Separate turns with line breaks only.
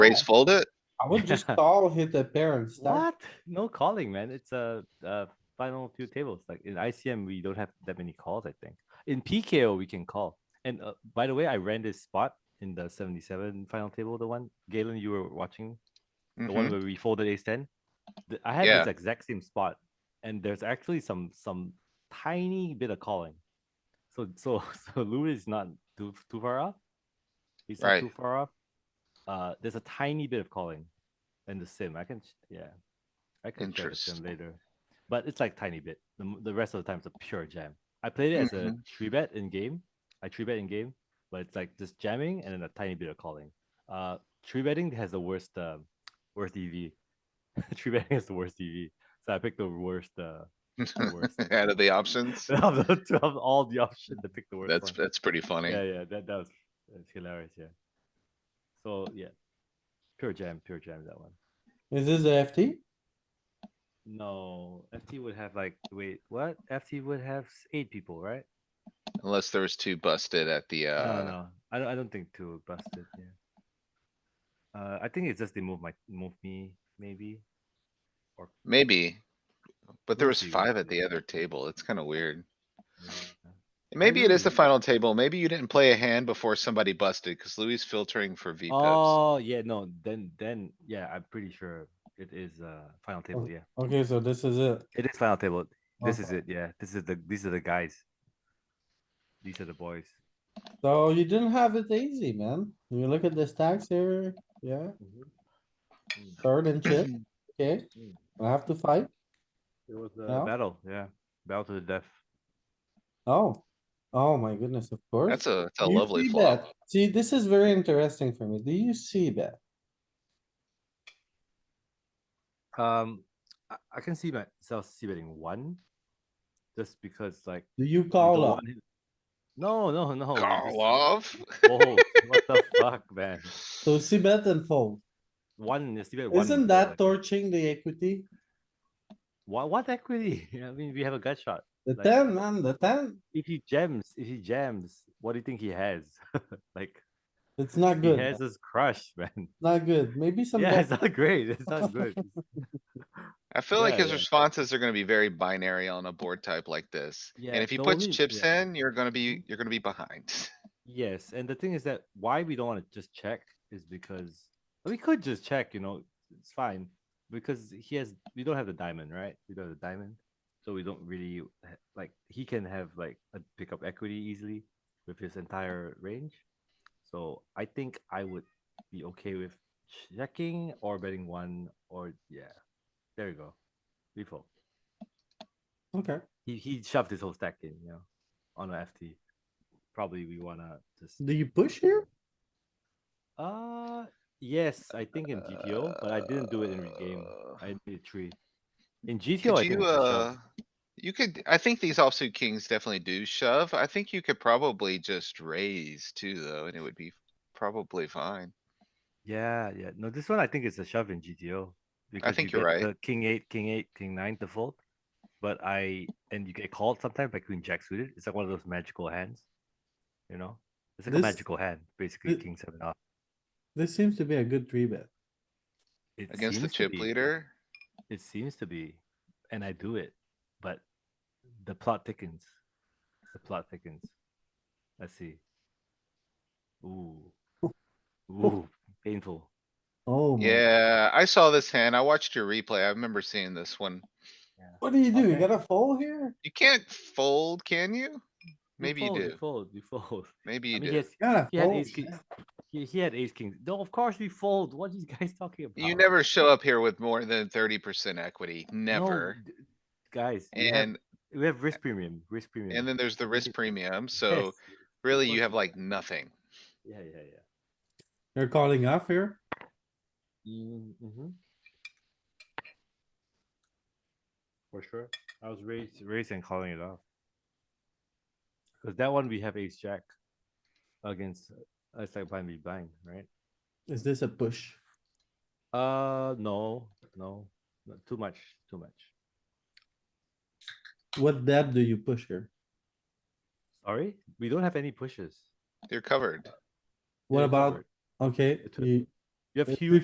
Raise fold it?
I would just call, hit the pair and stack.
What? No calling, man. It's a, uh final few tables. Like in ICM, we don't have that many calls. I think in PKO we can call. And uh, by the way, I ran this spot in the seventy-seven final table. The one Galen, you were watching the one
Mhm.
where we folded ace ten. Th- I had
Yeah.
this exact same spot, and there's actually some some tiny bit of calling. So so so Louis is not too too far off. He's not
Right.
too far off. Uh, there's a tiny bit of calling, in the sim. I can sh- yeah, I can show the sim
Interesting.
later, but it's like tiny bit. The m- the rest of the time it's a pure jam. I played it as a
Mm-hmm.
three bet in game. I three bet in game, but it's like just jamming and then a tiny bit of calling. Uh, three betting has the worst uh, worst EV. three betting has the worst EV. So I picked the worst uh, the worst
Out of the options?
of, the, of all the options. I picked the worst.
That's,
one.
that's pretty funny.
yeah, yeah. That that was that's hilarious. Yeah. So yeah, pure jam, pure jam. That one.
Is this a FT?
No, FT would have like wait what? FT would have s- eight people, right?
Unless there was two busted at the,
no,
uh,
no, I don't. I don't think two busted. Yeah. Uh, I think it's just they move my move me maybe.
maybe. But there
We'll
was
see, we'll
five at
see.
the other table. It's kinda weird.
Yeah.
Maybe it is the
Maybe.
final table. Maybe you didn't play a hand before somebody busted, cause Louis is filtering for V pips.
Oh yeah, no. Then then yeah, I'm pretty sure it is uh final table. Yeah,
Okay, so this is it.
it is final table. This is
Oh. Okay.
it. Yeah, this is the these are the guys. These are the boys.
So you didn't have it easy, man. You look at the stacks here, yeah,
Mm-hmm.
third and chip, okay?
Mm.
I have to fight.
It was a
Yeah.
battle. Yeah, battle to the death.
Oh, oh my goodness, of course.
That's a, that's a
Do you
lovely
see
flop.
that? See, this is very interesting for me. Do you see that?
Um, I, I can see myself c betting one, just because like
Do you
you
call
don't
up?
want him- No, no, no. you just-
Call off?
Whoa, what the fuck, man?
So see bet and fold.
One is c-bet one.
Isn't
is
that
like-
torching the equity?
What what equity? I mean, we have a gut shot.
The
Like-
ten, man, the ten,
If he jams, if he jams, what do you think he has? like
it's not
he
good,
has
man.
this crush, man.
not good. Maybe some.
Yeah,
bet-
it's not great. It's not good. It's-
I feel like
Yeah,
his
yeah.
responses are gonna be very binary on a board type like this.
Yeah,
And if he
the
puts
only-
chips
yeah.
in, you're gonna be, you're gonna be behind.
Yes, and the thing is that why we don't want to just check is because we could just check, you know, it's fine because he has we don't have the diamond, right? We don't have the diamond, so we don't really ha- like he can have like a pick up equity easily with his entire range. So I think I would be okay with checking or betting one or yeah, there you go, default.
Okay,
He he shoved his whole stack in, you know, on a FT. Probably we wanna just
do you push here?
uh yes, I think in GTO, but I didn't do it in game.
Uh,
I did three. In GTO, I
Could
think
you,
it's a shove.
uh, you could, I think these offsuit kings definitely do shove. I think you could probably just raise too, though, and it would be probably fine.
yeah, yeah. No, this one I think it's a shove in GTO. because you
think you're
get
right.
The king eight, king eight, king nine to fold. But I and you get called sometimes by queen jack suited. It's like one of those magical hands. You know? It's like
This-
a magical hand, basically
thi-
king seven off.
This seems to be a good three bet.
It
Against the
seems to
chip
be.
leader,
It seems to be, and I do it, but the plot thickens. The plot thickens. Let's see. Ooh. Ooh, painful.
Oh. my-
yeah, I saw this hand. I watched your replay. I remember seeing this one.
What do you do? You
Okay.
gotta fold here?
You can't fold, can you? Maybe you
fold,
do,
fold, you fold.
maybe
I
you
mean, he,
do. Oh.
has,
Gotta
he had
fold.
ace king. He, he had ace king. No, of course we fold. What are you guys talking about?
You never show up here with more than thirty percent equity,
No,
never.
d- guys, we have-
And,
we have risk premium. Risk premium.
and then there's the risk
Yes.
premium, so
Yes.
really you
course
have
you-
like nothing.
Yeah, yeah, yeah.
You're calling off here?
Mm-hmm. For sure. I was raised, raised and calling it off. Cause that one we have ace jack against, uh, it's like blind be blind, right?
Is this a push?
Uh, no, no, no, too much, too much.
What depth do you push here?
Sorry, we don't have any pushes.
You're covered.
What
They're
about,
covered.
okay,
It's a-
you,
You have
It's
huge